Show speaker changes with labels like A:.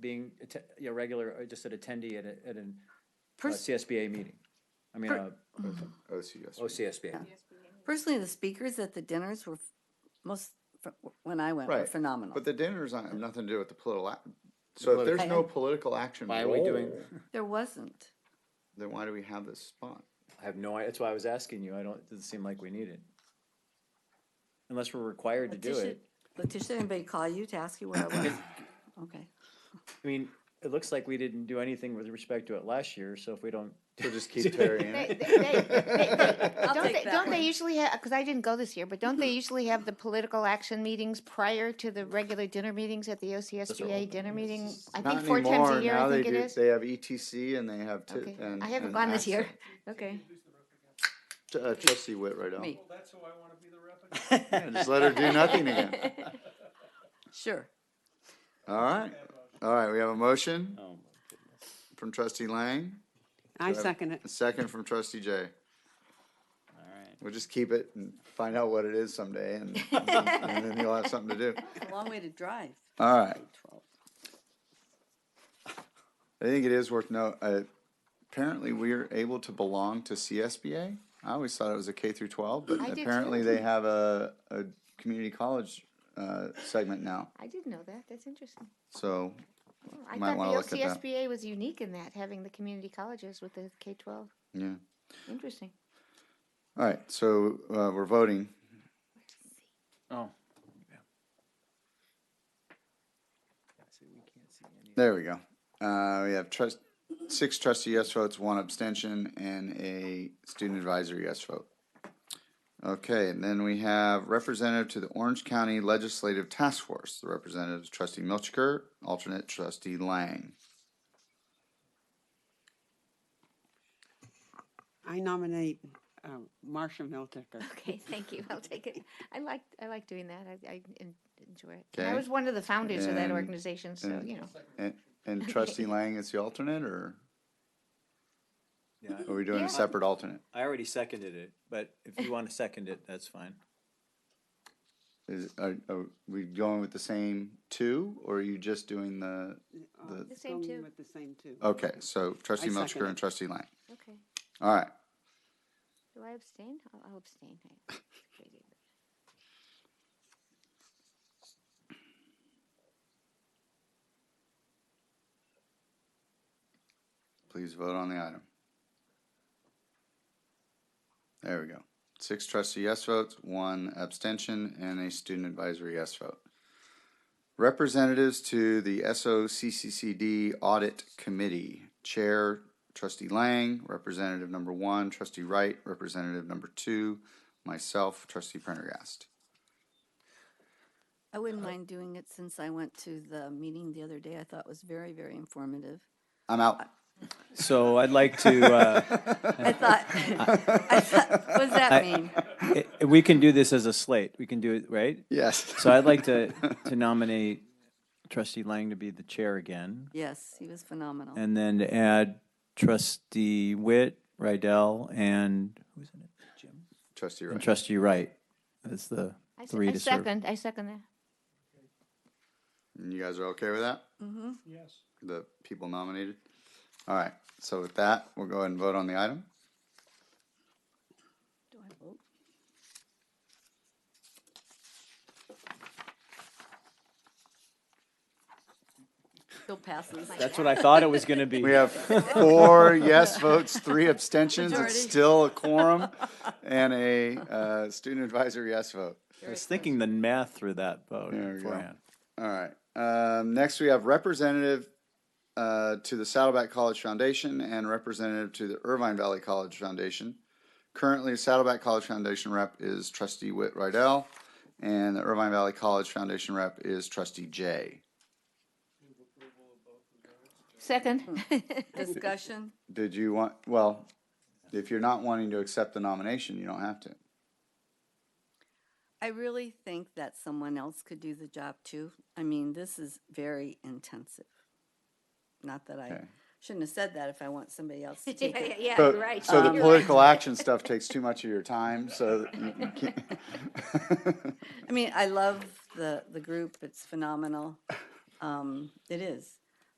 A: being atte- a regular, uh, just an attendee at a, at an uh,
B: Pers-
A: CSBA meeting. I mean,
B: Per-
A: uh, oh, OCSBA.
B: Personally, the speakers at the dinners were f- most, f- when I went, were
C: Right,
B: phenomenal.
C: But the dinners aren't- have nothing to do with the political, ac- so if there's
B: Political.
C: no political action
A: Why are we doing,
C: role,
B: There wasn't.
C: Then why do we have this spot?
A: I have no, i- that's why I was asking you. I don't, it doesn't seem like we need it. Unless we're required to do
B: Letitia-
A: it.
B: Letitia, anybody call you to ask you where I was? Okay.
A: I mean, it looks like we didn't do anything with respect to it last year, so if we don't.
C: So just keep Terry in
D: They,
C: it?
D: they, they, they,
B: I'll
D: don't
B: take
D: they,
B: that
D: don't
B: one.
D: they usually have, because I didn't go this year, but don't they usually have the political action meetings prior to the regular dinner meetings at the OCSBA dinner meeting? I think
C: Not
D: four times
C: anymore,
D: a year,
C: now
D: I
C: they
D: think
C: do,
D: it is.
C: they have ETC and they have. ti-
D: Okay,
C: and-
D: I haven't
C: and
D: gone this year.
C: access.
D: Okay.
C: T- uh, Trustee Whit right
B: Me.
C: now.
E: Well, that's who I want to be the rep again.
C: Just let her do nothing again.
B: Sure.
C: All right, all right, we have a motion
A: Oh,
C: from trustee Lang,
F: I
C: Go ahead.
F: second it.
C: a second from trustee Jay.
A: all right.
C: We'll just keep it and find out what it is someday and, and then you'll have something to do.
B: It's a long way to drive.
C: All right,
B: Twelve.
C: I think it is worth note, uh, apparently we're able to belong to CSBA. I always thought it was a K through twelve, but
D: I did too.
C: apparently they have a, a community college, uh, segment now.
D: I didn't know that. That's interesting.
C: So
D: Well, I
C: Might wanna
D: thought
C: look
D: the
C: at that.
D: OCSBA was unique in that, having the community colleges with the K-12.
C: Yeah.
D: Interesting.
C: All right, so uh, we're voting.
A: Oh.
C: There we go. Uh, we have trust, six trustee yes votes, one abstention, and a student advisory yes vote. Okay, and then we have representative to the Orange County Legislative Task Force. The representative is trustee Milchker, alternate trustee Lang.
F: I nominate um, Marcia Miltiker.
D: Okay, thank you. I'll take it. I like, I like doing that. I, I en- enjoy it. And I
C: Okay.
D: was one of the founders of that
C: And-
D: organization, so,
C: and-
D: you know.
C: And, and trustee Lang is the alternate, or
A: Yeah,
C: are we doing
D: Yeah.
C: a separate alternate?
A: I already seconded it, but if you want to second it, that's fine.
C: Is, are, are we going with the same two, or are you just doing the,
F: Uh,
C: The-
D: The same
F: going
D: two.
F: With the same two.
C: okay, so trustee
F: I second
C: Milchker and
F: it.
C: trustee Lang.
D: Okay.
C: All right,
D: Do I abstain? I'll I'll abstain. I-
C: Please vote on the item. There we go. Six trustee yes votes, one abstention, and a student advisory yes vote. Representatives to the SOCCCD Audit Committee. Chair, trustee Lang, representative number one, trustee Wright, representative number two, myself, trustee Prendergast.
B: I wouldn't mind doing it since I went to the meeting the other day. I thought it was very, very informative.
C: I'm out.
A: So I'd like to, uh,
B: I thought, I thought, what does
A: I-
B: that mean?
A: i- i- we can do this as a slate. We can do it, right?
C: Yes.
A: So I'd like to, to nominate trustee Lang to be the chair again.
B: Yes, he was phenomenal.
A: And then to add trustee Witt, Rydell, and who's in it? Jim?
C: Trustee
A: And
C: Wright.
A: trustee Wright as the
D: I se-
A: three
D: I
A: to serve.
D: second, I second that.
C: And You guys are okay with that?
E: Yes.
C: the people nominated. All right, so with that, we'll go ahead and vote on the item.
B: Do I vote? Still passes.
A: That's what I thought it was going to be.
C: We have four yes votes, three abstentions,
B: Majority.
C: it's still a quorum, and a uh, student advisory yes vote.
A: I was thinking the math through that vote
C: There we go.
A: beforehand.
C: All right, um, next we have representative uh, to the Saddleback College Foundation and representative to the Irvine Valley College Foundation. Currently, Saddleback College Foundation rep is trustee Whit Rydell, and the Irvine Valley College Foundation rep is trustee Jay.
D: Second.
B: Discussion?
C: Did you want, well, if you're not wanting to accept the nomination, you don't have to.
B: I really think that someone else could do the job too. I mean, this is very intensive. Not that I
C: Okay.
B: shouldn't have said that if I want somebody else to take it.
D: Yeah,
C: So-
D: you're right.
C: So the
D: You're right.
C: political action stuff takes too much of your time, so mm, that you you can't.
B: I mean, I love the, the group. It's phenomenal. Um, it is.